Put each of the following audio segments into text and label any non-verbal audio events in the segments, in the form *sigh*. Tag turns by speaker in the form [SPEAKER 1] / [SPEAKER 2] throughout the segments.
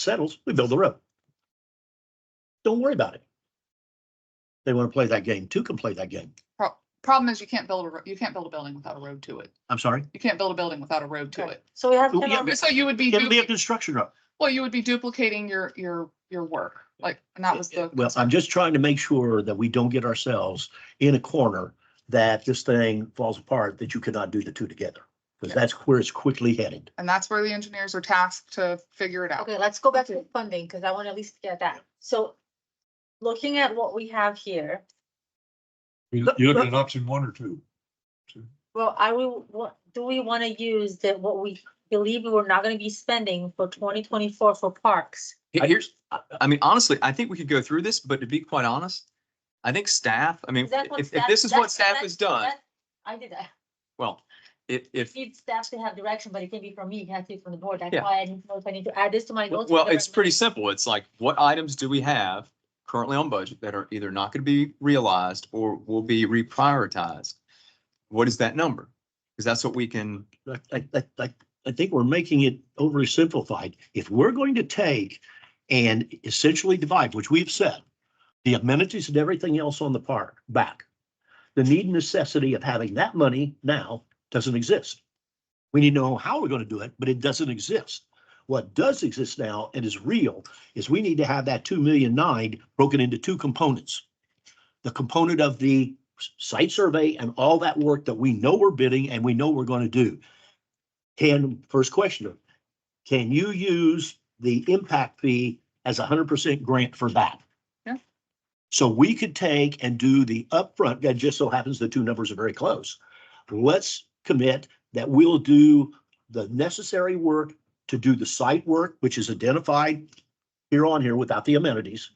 [SPEAKER 1] settles, we build the road. Don't worry about it. They want to play that game, two can play that game.
[SPEAKER 2] Pro- problem is you can't build a, ro- you can't build a building without a road to it.
[SPEAKER 1] I'm sorry.
[SPEAKER 2] You can't build a building without a road to it.
[SPEAKER 3] So we have.
[SPEAKER 1] Yeah,
[SPEAKER 3] ten
[SPEAKER 1] but-
[SPEAKER 2] So you would be,
[SPEAKER 1] It'll be a
[SPEAKER 2] dupli-
[SPEAKER 1] construction road.
[SPEAKER 2] well, you would be duplicating your, your, your work, like, and that was the.
[SPEAKER 1] Well, I'm just trying to make sure that we don't get ourselves in a corner that this thing falls apart, that you cannot do the two together. Because that's where it's quickly headed.
[SPEAKER 2] And that's where the engineers are tasked to figure it out.
[SPEAKER 3] Okay, let's go back to the funding, because I want to at least get that. So looking at what we have here,
[SPEAKER 4] You-
[SPEAKER 1] Look-
[SPEAKER 4] You're looking
[SPEAKER 1] look-
[SPEAKER 4] at option one or two.
[SPEAKER 3] well, I will, what, do we want to use that what we believe we're not going to be spending for twenty twenty-four for parks?
[SPEAKER 5] Here-
[SPEAKER 1] I-
[SPEAKER 5] Here's, I- I mean, honestly, I think we could go through this, but to be quite honest, I think staff, I mean,
[SPEAKER 3] Is that what
[SPEAKER 5] if, if
[SPEAKER 3] staff-
[SPEAKER 5] this is what
[SPEAKER 3] that's-
[SPEAKER 5] staff
[SPEAKER 3] that's-
[SPEAKER 5] has done,
[SPEAKER 3] that- I did, I
[SPEAKER 5] well, if, if,
[SPEAKER 3] need staff to have direction, but it can be from me, it has to be from the board. That's
[SPEAKER 5] Yeah.
[SPEAKER 3] why I didn't know if I need to add this to my notes. or
[SPEAKER 5] well,
[SPEAKER 3] whatever.
[SPEAKER 5] it's pretty simple. It's like, what items do we have currently on budget that are either not going to be realized or will be reprioritized? What is that number? Because that's what we can,
[SPEAKER 1] I, I, I- I, I think we're making it overly simplified. If we're going to take and essentially divide, which we've said, the amenities and everything else on the park back, the need and necessity of having that money now doesn't exist. We need to know how we're going to do it, but it doesn't exist. What does exist now and is real is we need to have that two million nine broken into two components. The component of the site survey and all that work that we know we're bidding and we know we're going to do. Can, first question, can you use the impact fee as a hundred percent grant for that?
[SPEAKER 2] Yeah.
[SPEAKER 1] So we could take and do the upfront, that just so happens the two numbers are very close. Let's commit that we'll do the necessary work to do the site work, which is identified here on here without the amenities.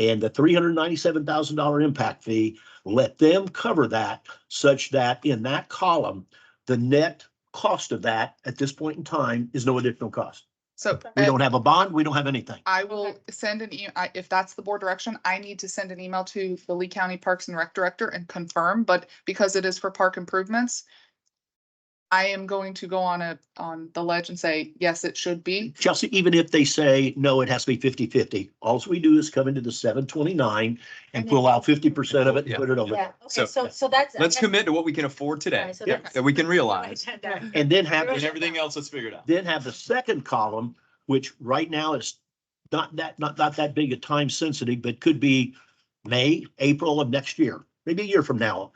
[SPEAKER 1] And the three hundred ninety-seven thousand dollar impact fee let them cover that such that in that column, the net cost of that at this point in time is no additional cost.
[SPEAKER 2] So
[SPEAKER 1] We don't have a bond, we don't have anything.
[SPEAKER 2] I will send an e, I, if that's the board direction, I need to send an email to the Lee County Parks and Rec Director and confirm, but because it is for park improvements, I am going to go on a, on the ledge and say, yes, it should be.
[SPEAKER 1] Chelsea, even if they say, no, it has to be 50 50, all we do is come into the seven twenty-nine and pull out fifty percent of it and put it over.
[SPEAKER 3] Yeah,
[SPEAKER 1] there.
[SPEAKER 3] okay,
[SPEAKER 5] So-
[SPEAKER 3] so, so that's. I
[SPEAKER 5] let's
[SPEAKER 3] guess-
[SPEAKER 5] commit to what we can afford
[SPEAKER 3] All
[SPEAKER 5] today,
[SPEAKER 3] right, so
[SPEAKER 1] Yeah.
[SPEAKER 3] that's- *laughs*
[SPEAKER 5] that we can realize.
[SPEAKER 3] Write that down.
[SPEAKER 1] And then have,
[SPEAKER 5] And everything else, let's figure it out.
[SPEAKER 1] then have the second column, which right now is not that, not, not that big a time sensitive, but could be May, April of next year, maybe a year from now.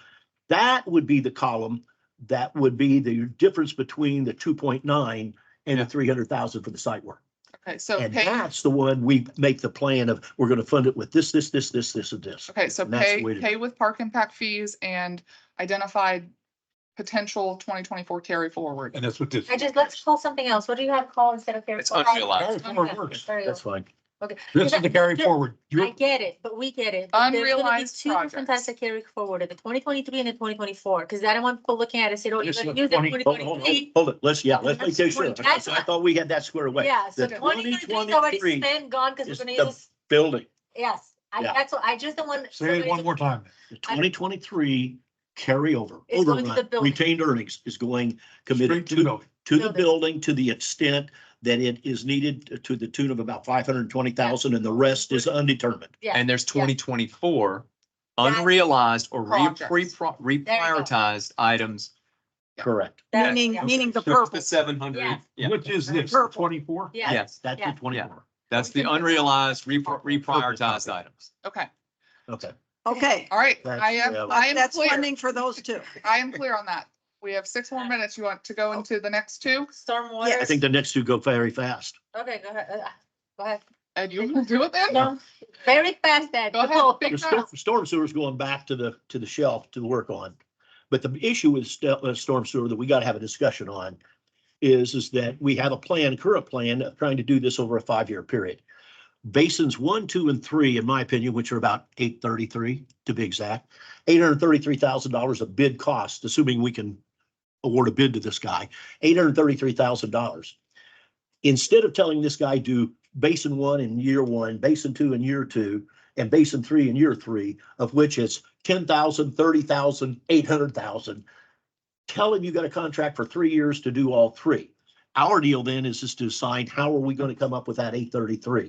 [SPEAKER 1] That would be the column that would be the difference between the two point nine and the
[SPEAKER 5] Yeah.
[SPEAKER 1] three hundred thousand for the site work.
[SPEAKER 2] Okay, so
[SPEAKER 1] And
[SPEAKER 2] page,
[SPEAKER 1] that's the one we make the plan of, we're gonna fund it with this, this, this, this, this, and this.
[SPEAKER 2] okay, so
[SPEAKER 1] and that's the
[SPEAKER 2] pay,
[SPEAKER 1] way to-
[SPEAKER 2] pay with park impact fees and identified potential twenty twenty-four carry forward.
[SPEAKER 4] And that's what this.
[SPEAKER 3] I just, let's call something else. What do you have called instead of? carry
[SPEAKER 5] It's
[SPEAKER 3] forward?
[SPEAKER 5] unrealized.
[SPEAKER 4] Carry forward works.
[SPEAKER 3] Carry
[SPEAKER 1] That's
[SPEAKER 3] over.
[SPEAKER 1] fine.
[SPEAKER 4] This is the carry
[SPEAKER 3] Yeah.
[SPEAKER 4] forward.
[SPEAKER 3] I
[SPEAKER 4] You're-
[SPEAKER 3] get it, but we get it. but there's gonna be
[SPEAKER 2] Unrealized
[SPEAKER 3] Two different
[SPEAKER 2] projects.
[SPEAKER 3] types of carry forward, the twenty twenty-three and the twenty twenty-four, because I don't want people looking at it, and say, oh, you're
[SPEAKER 4] This
[SPEAKER 3] gonna
[SPEAKER 4] is
[SPEAKER 3] use
[SPEAKER 4] 20
[SPEAKER 3] that twenty
[SPEAKER 1] Hold it, hold it,
[SPEAKER 3] twenty-three.
[SPEAKER 1] hold it. Let's, yeah, let's make
[SPEAKER 3] That's
[SPEAKER 1] sure.
[SPEAKER 3] what- that's
[SPEAKER 1] I thought we had that squared away.
[SPEAKER 3] Yeah, so
[SPEAKER 1] The
[SPEAKER 3] twenty twenty-three is already
[SPEAKER 1] 2023
[SPEAKER 3] spent, gone, because
[SPEAKER 1] is
[SPEAKER 3] we're
[SPEAKER 1] the-
[SPEAKER 3] gonna use,
[SPEAKER 1] Building.
[SPEAKER 3] yes, I,
[SPEAKER 1] Yeah.
[SPEAKER 3] that's what, I just don't want.
[SPEAKER 4] Say it
[SPEAKER 3] somebody
[SPEAKER 4] one
[SPEAKER 3] to-
[SPEAKER 4] more time.
[SPEAKER 1] The twenty twenty-three carryover,
[SPEAKER 3] It's going to the
[SPEAKER 1] overrun,
[SPEAKER 3] building.
[SPEAKER 1] retained earnings is going
[SPEAKER 4] Straight
[SPEAKER 1] committed
[SPEAKER 4] to
[SPEAKER 1] to,
[SPEAKER 4] go.
[SPEAKER 1] to the
[SPEAKER 3] Building.
[SPEAKER 1] building to the extent that it is needed to the tune of about five hundred and twenty thousand and the rest is undetermined.
[SPEAKER 3] Yeah,
[SPEAKER 5] And there's twenty twenty-four
[SPEAKER 3] That's-
[SPEAKER 5] unrealized or re-
[SPEAKER 2] Projects.
[SPEAKER 5] pre- pro- reprioritized items.
[SPEAKER 1] Correct.
[SPEAKER 3] that-
[SPEAKER 6] Meaning,
[SPEAKER 3] yeah.
[SPEAKER 6] meaning
[SPEAKER 5] *laughs*
[SPEAKER 6] the
[SPEAKER 5] So it's
[SPEAKER 6] purple.
[SPEAKER 5] The seven hundred,
[SPEAKER 3] Yeah.
[SPEAKER 5] yeah,
[SPEAKER 4] Which is this,
[SPEAKER 6] Purple.
[SPEAKER 4] twenty-four?
[SPEAKER 3] Yeah,
[SPEAKER 5] yes.
[SPEAKER 1] That's
[SPEAKER 3] Yeah.
[SPEAKER 1] the twenty-four.
[SPEAKER 5] That's the unrealized, repro- reprioritized items.
[SPEAKER 2] Okay,
[SPEAKER 1] Okay.
[SPEAKER 6] Okay,
[SPEAKER 2] all right,
[SPEAKER 1] That's,
[SPEAKER 2] I am,
[SPEAKER 1] uh,
[SPEAKER 2] I am
[SPEAKER 6] that's
[SPEAKER 2] clear,
[SPEAKER 6] funding for those two.
[SPEAKER 2] I am clear on that. We have six more minutes. You want to go into the next two?
[SPEAKER 3] stormwater.
[SPEAKER 1] I think the next two go very fast.
[SPEAKER 3] Okay, go ahead, uh, go ahead.
[SPEAKER 2] And you wanna do it then?
[SPEAKER 3] No, very fast, Ed.
[SPEAKER 2] Go ahead,
[SPEAKER 3] Oh,
[SPEAKER 2] big
[SPEAKER 1] The
[SPEAKER 2] mouth.
[SPEAKER 1] storm, storm sewer's going back to the, to the shelf to work on. But the issue with st- uh, storm sewer that we gotta have a discussion on is, is that we have a plan, current plan of trying to do this over a five-year period. Basins one, two, and three, in my opinion, which are about eight thirty-three to be exact, eight hundred thirty-three thousand dollars of bid cost, assuming we can award a bid to this guy, eight hundred thirty-three thousand dollars. Instead of telling this guy do basin one in year one, basin two in year two, and basin three in year three, of which it's ten thousand, thirty thousand, eight hundred thousand. Tell him you got a contract for three years to do all three. Our deal then is just to assign, how are we going to come up with that eight thirty-three?